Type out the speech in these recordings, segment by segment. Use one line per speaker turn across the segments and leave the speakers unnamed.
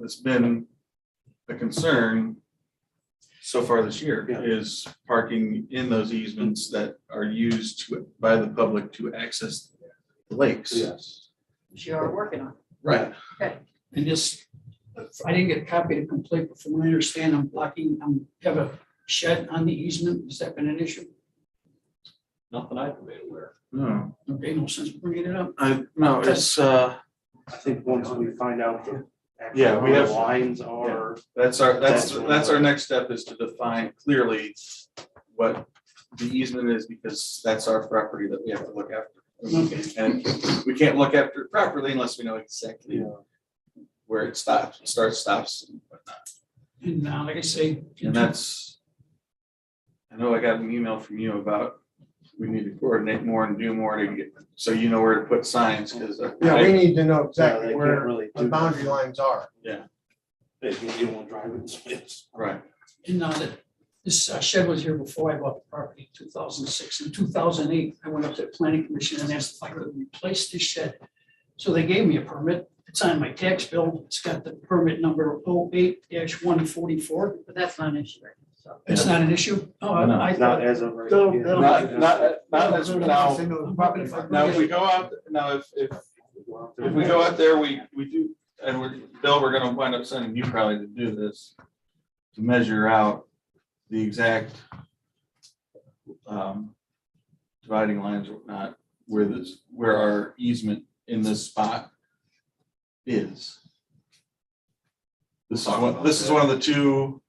that's been a concern so far this year
Yeah.
is parking in those easements that are used to- by the public to access the lakes.
Yes.
which you are working on.
Right.
And just, I didn't get a copy to complete, but from what I understand, I'm blocking, I'm, have a shed on the easement. Has that been an issue?
Not that I've been aware.
No,
Okay, no sense bringing it up.
I, no, it's, uh, I think once we find out the. actual
Yeah, we have-
Lines are,
that's our, that's,
That's-
that's our next step is to define clearly what the easement is because that's our property that we have to look after. And we can't look after it properly unless we know exactly
you know,
where it stops, starts, stops and whatnot.
And uh, like I say,
And that's, I know I got an email from you about, we need to coordinate more and do more to get, so you know where to put signs, uh, because.
Yeah, we need to know
they
exactly
can't
where
really
the
do that.
boundary lines are.
If you don't want to drive in space.
Right,
and now that this uh, shed was here before I bought the property in two thousand six. In two thousand eight, I went up to the planning commission and asked if I could replace this shed. So they gave me a permit. It's on my tax bill. It's got the permit number 8 one forty-four.
But that's not an issue right now, so.
It's not an issue. Oh,
No.
I I
Not
thought.
as of right.
No,
yeah.
no,
not, not, not as, now,
They know the
I'm hoping
property
if I
line.
now, if we go out, now, if, if,
Go out there.
if we go out there, we, we do, and we're, Bill, we're gonna wind up sending you probably to do this. To measure out the exact. Um, dividing lines, or whatnot, where this, where our easement in this spot is. This is one, this is one of the two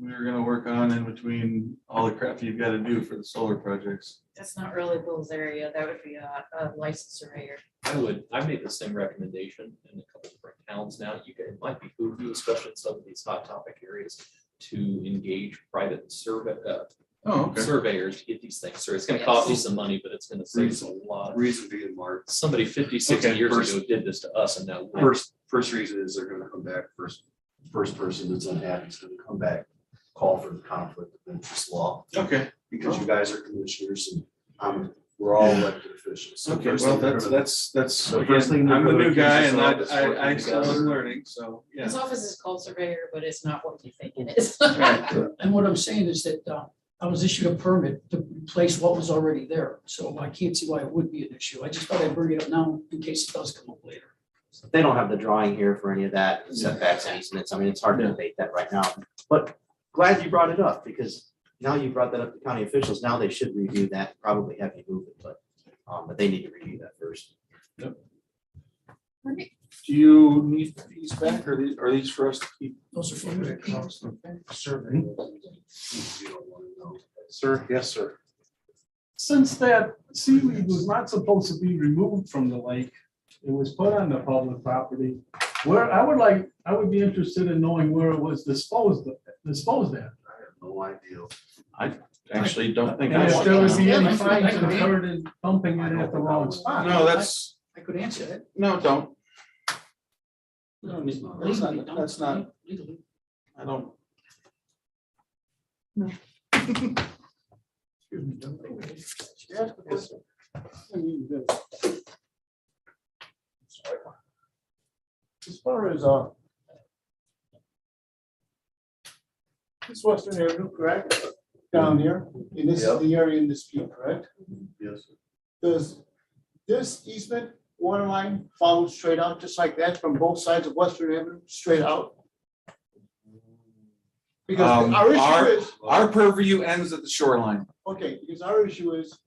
we were gonna work on in between all the crap you've gotta do for the solar projects.
That's not really Bill's area. That would be a, a licensed surveyor.
I would, I made the same recommendation in a couple different towns now. You can, it might be who you, especially in some of these hot topic areas, to engage private survey, uh,
Oh,
surveyors to get these things. So it's gonna
Yes.
cost you some money, but it's gonna save us a lot.
Reason being, Mark,
Somebody 50, 60
Okay,
years
first-
ago did this to us and now. we're-
first, first reason is they're gonna come back, first, first person that's unhappy is gonna come back, call for the conflict of interest law,
Okay,
because you guys are commissioners and I'm, we're all elected officials. So
okay,
first
well,
thing they're
that's,
gonna-
that's, that's,
So
again,
first thing they're
I'm the
gonna
new guy
accuse
and
us
I,
of is
I, I
working
still
together.
am learning, so, yeah.
His office is called surveyor, but it's not what you think it is.
Right.
And what I'm saying is that uh, I was issued a permit to replace what was already there, so I can't see why it would be an issue. I just thought I'd bring it up now in case it does come up later.
They don't have the drawing here for any of that setbacks and easements. I mean, it's hard to
Yeah.
debate that right now. But glad you brought it up because now you brought that up to county officials. Now they should review that, probably have you move it, but, um, but they need to review that first.
Do you need these back or these, are these for us to keep?
Those are for
When
you.
it comes to survey.
You don't wanna know.
Sir, yes, sir.
since that seaweed was not supposed to be removed from the lake, it was put on the public property. Where, I would like, I would be interested in knowing where it was disposed, of- disposed at.
I have no idea.
Actually, don't think.
And
I
if there
want
would
them.
be any
Yeah,
fines
I could-
incurred in dumping it at the wrong spot.
No, that's,
I could answer that.
no, don't,
No,
it's not- that's not- that's not-
Legally.
I don't.
As far as, uh, this Western Avenue, correct, down here, and this is
Yep.
the area in dispute, correct?
Yes.
Does this easement water line follow straight out, just like that, from both sides of Western Avenue, straight out? Because
Um,
our
our-
issue is,
Our purview ends at the shoreline.
okay, because our issue is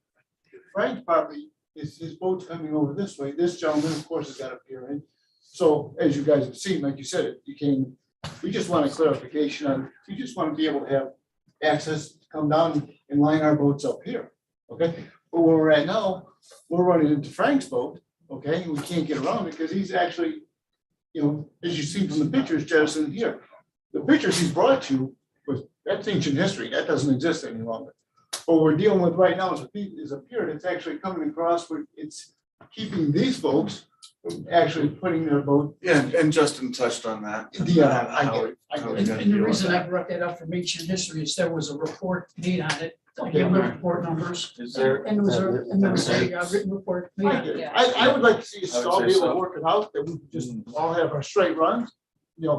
Frank's property, is his boat's coming over this way, this gentleman, of course, has got a pier in. So as you guys have seen, like you said, it became, we just want a clarification on, we just want to be able to have access to come down and line our boats up here, okay? But where we're at now, we're running into Frank's boat, okay, and we can't get around it because he's actually, you know, as you see from the pictures, Jefferson, here, the pictures he's brought you was, that's ancient history, that doesn't exist any longer. What we're dealing with right now is a, pe- is a pier that's actually coming across, where it's keeping these folks from actually putting their boat
Yeah, and Justin touched on that.
Yeah, I get it, I
How
get
we
it.
And
gotta
and the
deal with
reason
that.
I brought that up from ancient history is there was a report made on it. I
Okay.
gave the report numbers.
Is there,
And there was a, and there was a uh, written report made
I
on it.
get it. I, I would like to see us
I would
all
say
be able
so.
to work it out, that we just all have our straight runs,